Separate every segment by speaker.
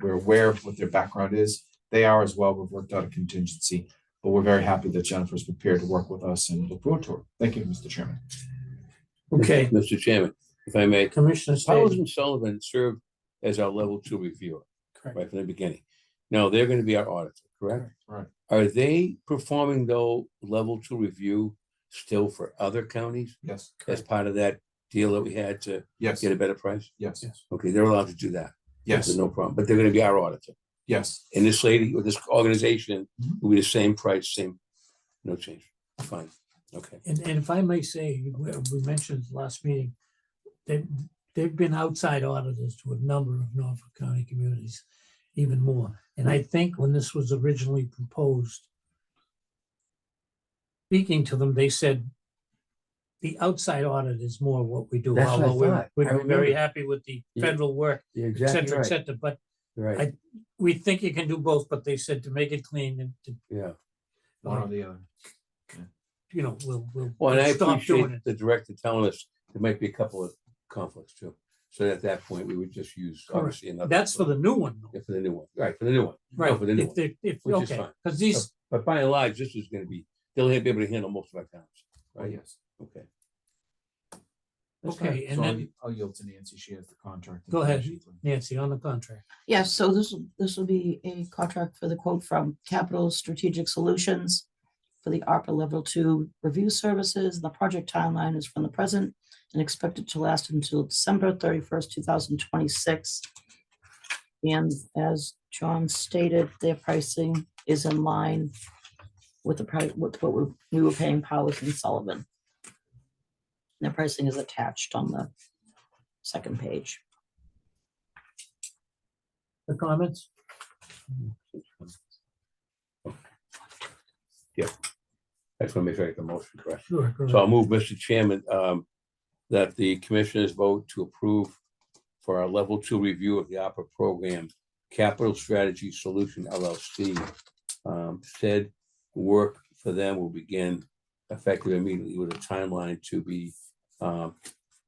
Speaker 1: we're aware of what their background is. They are as well. We've worked out a contingency, but we're very happy that Jennifer's prepared to work with us and look forward to it. Thank you, Mr. Chairman.
Speaker 2: Okay,
Speaker 3: Mr. Chairman, if I may,
Speaker 2: Commissioner State.
Speaker 3: Paulson Sullivan served as our level two reviewer
Speaker 2: Correct.
Speaker 3: right from the beginning. Now, they're gonna be our auditor, correct?
Speaker 1: Right.
Speaker 3: Are they performing though level two review still for other counties
Speaker 1: Yes,
Speaker 3: as part of that deal that we had to
Speaker 1: yes,
Speaker 3: get a better price?
Speaker 1: yes,
Speaker 3: Okay, they're allowed to do that. There's
Speaker 1: yes,
Speaker 3: No problem, but they're gonna be our auditor.
Speaker 1: yes.
Speaker 3: And this lady or this organization
Speaker 1: Mhm.
Speaker 3: will be the same price, same, no change. Fine, okay.
Speaker 2: And, and if I may say, we we mentioned last meeting, they, they've been outside auditors to a number of Norfolk County communities, even more. And I think when this was originally proposed, speaking to them, they said the outside audit is more what we do.
Speaker 4: That's what I
Speaker 2: although we're-
Speaker 4: thought. I
Speaker 2: We're very
Speaker 4: remember.
Speaker 2: happy with the
Speaker 4: Yeah.
Speaker 2: federal work,
Speaker 4: You're
Speaker 2: et
Speaker 4: exactly
Speaker 2: cetera, et
Speaker 4: right.
Speaker 2: cetera. But
Speaker 4: Right.
Speaker 2: we think you can do both, but they said to make it clean and to,
Speaker 3: Yeah.
Speaker 1: One or the other.
Speaker 2: you know, we'll, we'll.
Speaker 3: Well, and I
Speaker 2: we'll stop doing
Speaker 3: appreciate the director telling us there might be a couple of conflicts too. So at that point, we would just use
Speaker 2: Correct.
Speaker 3: obviously another.
Speaker 2: it. That's for the new one. though.
Speaker 3: Yeah, For the new one, right, for the new one. No,
Speaker 2: Right,
Speaker 3: For the new
Speaker 2: if
Speaker 3: one.
Speaker 2: they, if,
Speaker 3: which is
Speaker 2: okay,
Speaker 3: fine.
Speaker 2: because these,
Speaker 3: But by and large, this is gonna be, they'll be able to handle most of our towns,
Speaker 1: Oh,
Speaker 3: right?
Speaker 1: yes.
Speaker 3: Okay.
Speaker 1: That's fine.
Speaker 2: Okay, and
Speaker 1: So I'll
Speaker 2: then-
Speaker 1: y- I'll yield to Nancy. She has the contract.
Speaker 2: Go ahead.
Speaker 1: information.
Speaker 2: Nancy, on the contract,
Speaker 5: Yes, so this, will this will be a contract for the quote from Capital Strategic Solutions for the ARPA Level Two Review Services. The project timeline is from the present and expected to last until December thirty-first, two thousand twenty-six. And as John stated, their pricing is in line with the price, with what we- we were paying Powers and Sullivan. Their pricing is attached on the second page.
Speaker 2: the comments?
Speaker 3: I just wanna make sure I get the motion correct.
Speaker 2: Sure. go ahead.
Speaker 3: So I'll move, Mr. Chairman, um, that the commissioners vote to approve for our level two review of the opera program, Capital Strategy Solution LLC. Um, said work for them will begin effective immediately with a timeline to be, um,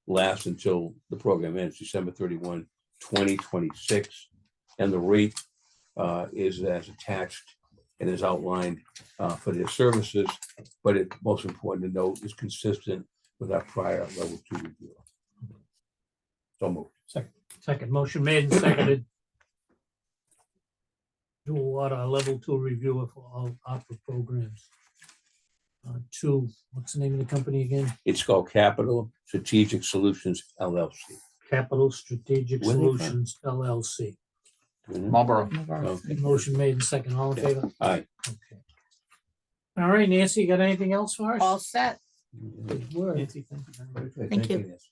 Speaker 3: last until the program ends December 31, 2026, And the rate, uh, is as attached and is outlined, uh, for their services but it most important to note is consistent with our prior level two review. So moved.
Speaker 2: Second motion made and seconded. Do what our level two reviewer for all opera programs. Uh, two, what's the name of the company again?
Speaker 3: It's called Capital Strategic Solutions LLC.
Speaker 2: Capital Strategic
Speaker 3: Where they from?
Speaker 2: Solutions LLC.
Speaker 3: Mhm.
Speaker 1: Marlboro.
Speaker 3: Okay.
Speaker 2: Motion made and second, all in
Speaker 3: Yeah.
Speaker 2: favor?
Speaker 3: All right.
Speaker 2: Okay. All right, Nancy, you got anything else for us?
Speaker 5: All set.
Speaker 2: Good work.
Speaker 1: Nancy, thank you very much.
Speaker 3: Okay,
Speaker 5: Thank you.
Speaker 3: Nancy.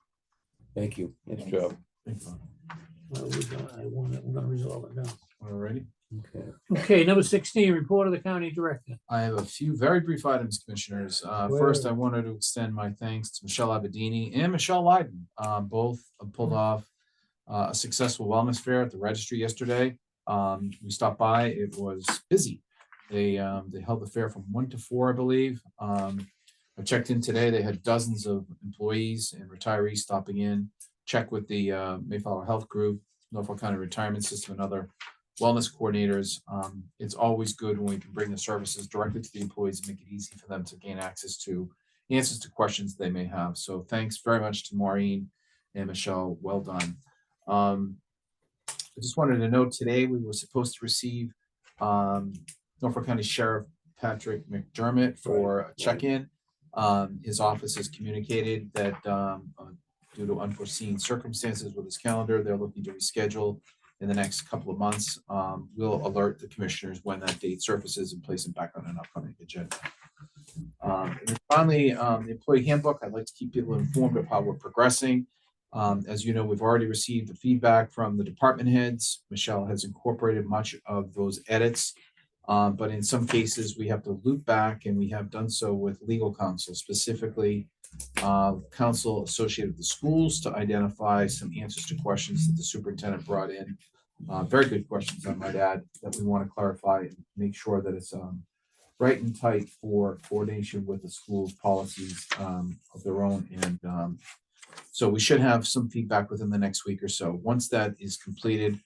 Speaker 3: Thank you. Nice
Speaker 5: Thanks.
Speaker 3: job.
Speaker 1: Thanks, Bob.
Speaker 2: Well, we got- I want to, we're gonna resolve it now.
Speaker 1: All righty.
Speaker 3: Okay.
Speaker 2: Okay, number sixteen, report of the county director.
Speaker 1: I have a few very brief items, commissioners. Uh, first, I wanted to extend my thanks to Michelle Abadini and Michelle Lyden. Uh, both pulled off uh, a successful wellness fair at the registry yesterday. Um, we stopped by, it was busy. They, um, they held the fair from one to four, I believe. Um, I checked in today, they had dozens of employees and retirees stopping in. Check with the, uh, Mayflower Health Group, Norfolk County Retirement System and other wellness coordinators. Um, it's always good when we can bring the services directly to the employees and make it easy for them to gain access to answers to questions they may have. So thanks very much to Maureen and Michelle. Well done. Um, I just wanted to note today, we were supposed to receive, um, Norfolk County Sheriff Patrick McDermott for a check-in. Um, his office has communicated that, um, uh, due to unforeseen circumstances with his calendar, they're looking to reschedule in the next couple of months. Um, we'll alert the commissioners when that date surfaces and place it back on an upcoming agenda. Um, and then finally, um, the employee handbook, I'd like to keep people informed of how we're progressing. Um, as you know, we've already received the feedback from the department heads. Michelle has incorporated much of those edits. Um, but in some cases, we have to loop back and we have done so with legal counsel, specifically uh, counsel associated with the schools to identify some answers to questions that the superintendent brought in uh, very good questions, I might add, that we want to clarify and make sure that it's, um, right and tight for coordination with the school's policies, um, of their own and, um, so we should have some feedback within the next week or so. Once that is completed,